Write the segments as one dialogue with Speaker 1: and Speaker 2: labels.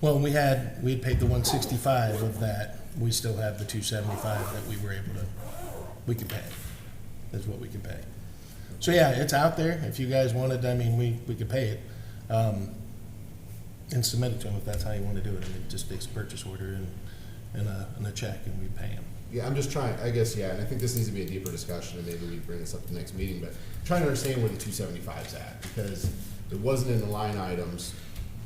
Speaker 1: Well, we had, we had paid the one sixty-five of that, we still have the two seventy-five that we were able to, we can pay. That's what we can pay. So, yeah, it's out there, if you guys wanted, I mean, we, we could pay it. Um, and submit it to them if that's how you wanna do it, I mean, just fix purchase order and, and a, and a check and we pay them.
Speaker 2: Yeah, I'm just trying, I guess, yeah, and I think this needs to be a deeper discussion, and maybe we bring this up at the next meeting, but trying to understand where the two seventy-five's at, because it wasn't in the line items,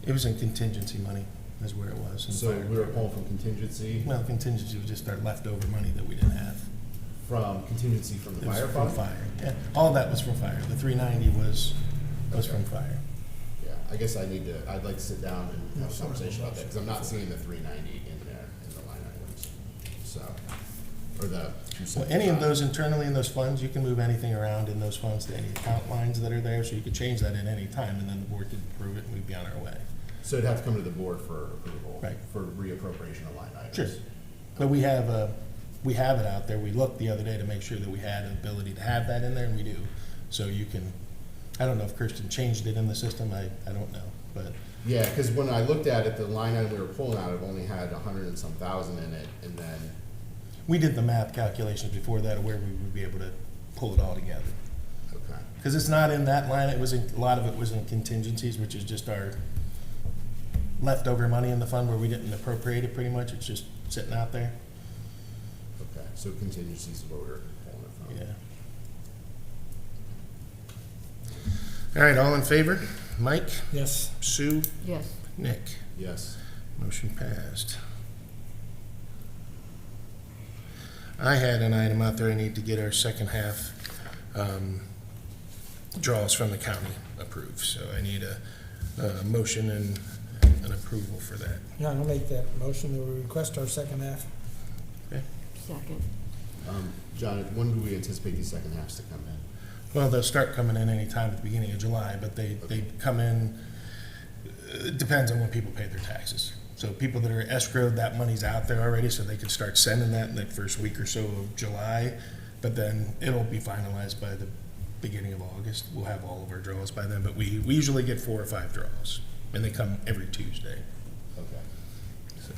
Speaker 1: It was in contingency money, is where it was. in
Speaker 2: so
Speaker 1: fire.
Speaker 2: we were pulling from contingency,
Speaker 1: Well, contingency was just our leftover money that we didn't have.
Speaker 2: from contingency from the
Speaker 1: It was
Speaker 2: fire
Speaker 1: from
Speaker 2: fund.
Speaker 1: fire, yeah, all of that was from fire, the three ninety was, was
Speaker 2: Okay.
Speaker 1: from fire.
Speaker 2: Yeah, I guess I need to, I'd like to sit down and have a conversation about that, because I'm not seeing the three ninety in there, in the line items, so, or the.
Speaker 1: So any of those internally in those funds, you can move anything around in those funds to any account lines that are there, so you could change that at any time, and then the board could approve it and we'd be on our way.
Speaker 2: So it'd have to come to the board for approval.
Speaker 1: Right.
Speaker 2: For reappropriation of line items.
Speaker 1: Sure. But we have a, we have it out there, we looked the other day to make sure that we had an ability to have that in there, and we do. So you can, I don't know if Kirsten changed it in the system, I, I don't know, but
Speaker 2: Yeah, because when I looked at it, the line item we were pulling out of only had a hundred and some thousand in it, and then,
Speaker 1: we did the math calculations before that, of where we would be able to pull it all together.
Speaker 2: okay.
Speaker 1: Because it's not in that line, it was, in- a lot of it was in contingencies, which is just our leftover money in the fund where we didn't appropriate it pretty much, it's just sitting out there,
Speaker 2: Okay, so contingencies is where we were pulling it from.
Speaker 1: yeah. All right, all in favor? Mike,
Speaker 3: Yes.
Speaker 1: Sue,
Speaker 4: Yes,
Speaker 1: Nick,
Speaker 2: Yes,
Speaker 1: motion passed. I had an item out there, I need to get our second half um, draws from the county approved, so I need a, a motion and an approval for that.
Speaker 3: Yeah, I'll make that motion that we request our second half.
Speaker 4: second.
Speaker 2: um, John, when do we anticipate these second halves to come in?
Speaker 1: Well, they'll start coming in anytime at the beginning of July, but they, they come in, it depends on when people pay their taxes. So people that are escrowed, that money's out there already, so they can start sending that in the first week or so of July. But then it'll be finalized by the beginning of August. We'll have all of our draws by then, but we, we usually get four or five draws, and they come every Tuesday,
Speaker 2: Okay.
Speaker 1: so.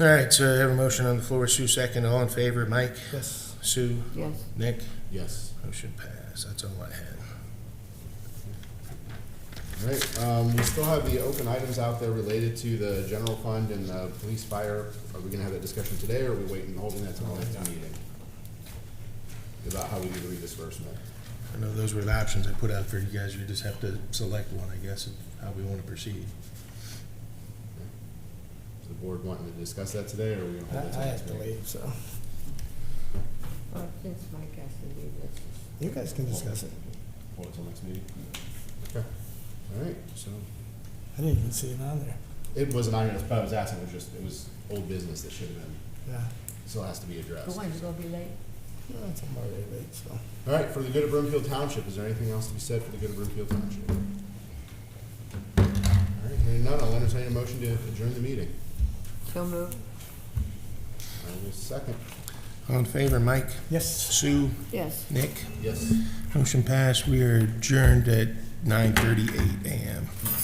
Speaker 1: All right, so I have a motion on the floor, Sue second, all in favor, Mike,
Speaker 3: Yes.
Speaker 1: Sue,
Speaker 4: Yes,
Speaker 1: Nick?
Speaker 2: Yes.
Speaker 1: Motion pass, that's all I had.
Speaker 2: All right, um, we still have the open items out there related to the general fund and the police fire. Are we gonna have that discussion today, or are we waiting, and holding that till the next meeting? About how we do the redisbursement?
Speaker 1: I know those were the options I put out for you guys, you just have to select one, I guess, of how we want to proceed.
Speaker 2: Is the board wanting to discuss that today, or are we gonna
Speaker 3: I
Speaker 2: hold that till
Speaker 3: I
Speaker 2: the
Speaker 3: have
Speaker 2: next
Speaker 3: to
Speaker 2: meeting?
Speaker 3: leave, so
Speaker 4: well, since Mike has to leave, let's just
Speaker 3: you guys can discuss it.
Speaker 2: Hold it till next meeting? Okay, all right, so,
Speaker 3: I didn't even see it on there.
Speaker 2: it wasn't on your, but I was asking, it was just, it was old business that should have been,
Speaker 3: Yeah.
Speaker 2: still has to be addressed.
Speaker 4: The one's gonna be late.
Speaker 3: No, it's already late, so.
Speaker 2: All right, for the good of Broomfield Township, is there anything else to be said for the good of Broomfield Township? All right, hearing none, I'll entertain a motion to adjourn the meeting.
Speaker 4: So moved.
Speaker 2: I will second.
Speaker 1: All in favor, Mike,
Speaker 3: Yes.
Speaker 1: Sue,
Speaker 4: Yes.
Speaker 1: Nick?
Speaker 2: Yes.
Speaker 1: Motion passed, we are adjourned at nine thirty-eight AM.